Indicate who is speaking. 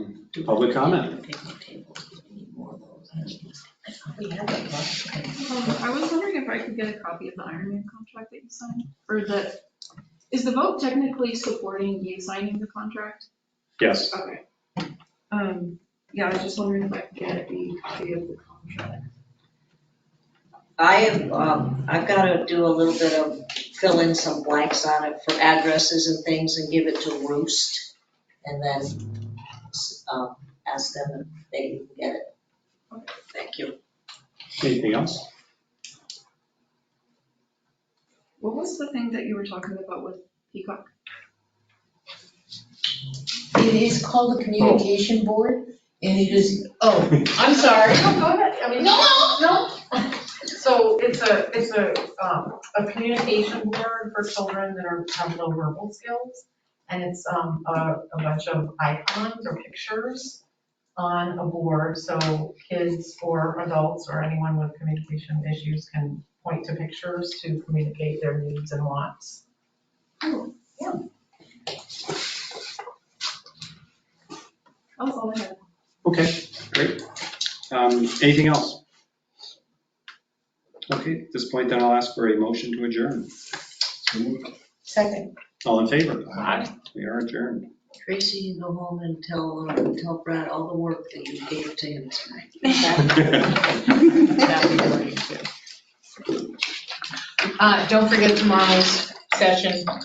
Speaker 1: do
Speaker 2: Public
Speaker 1: we
Speaker 2: comment.
Speaker 1: need to pick the tables? We need more of those. I thought we had that last time.
Speaker 3: Um, I was wondering if I could get a copy of the Iron Man contract that you signed, or the, is the vote technically supporting you signing the contract?
Speaker 2: Yes,
Speaker 3: Okay. Um, yeah, I was just wondering if I could get a copy of the contract.
Speaker 1: I have, um, I've got to do a little bit of, fill in some blanks on it for addresses and things and give it to Roost. And then, um, ask them if they can get it. Thank you.
Speaker 2: anything else?
Speaker 3: What was the thing that you were talking about with Peacock?
Speaker 4: It is called the communication board, and it is, oh, I'm sorry.
Speaker 5: No, go ahead, I mean.
Speaker 4: No,
Speaker 5: No? So it's a, it's a, um, a communication board for children that are, have low verbal skills. And it's, um, a, a bunch of icons or pictures on a board, so kids or adults or anyone with communication issues can point to pictures to communicate their needs and wants.
Speaker 3: That was all I had.
Speaker 2: Okay, great. Um, Anything else? Okay, at this point, then I'll ask for a motion to adjourn.
Speaker 4: Second.
Speaker 2: All in favor? We are adjourned.
Speaker 1: Tracy, you go home and tell, uh, tell Brad all the work that you gave to him tonight. That'd be really good.
Speaker 5: Uh, don't forget tomorrow's session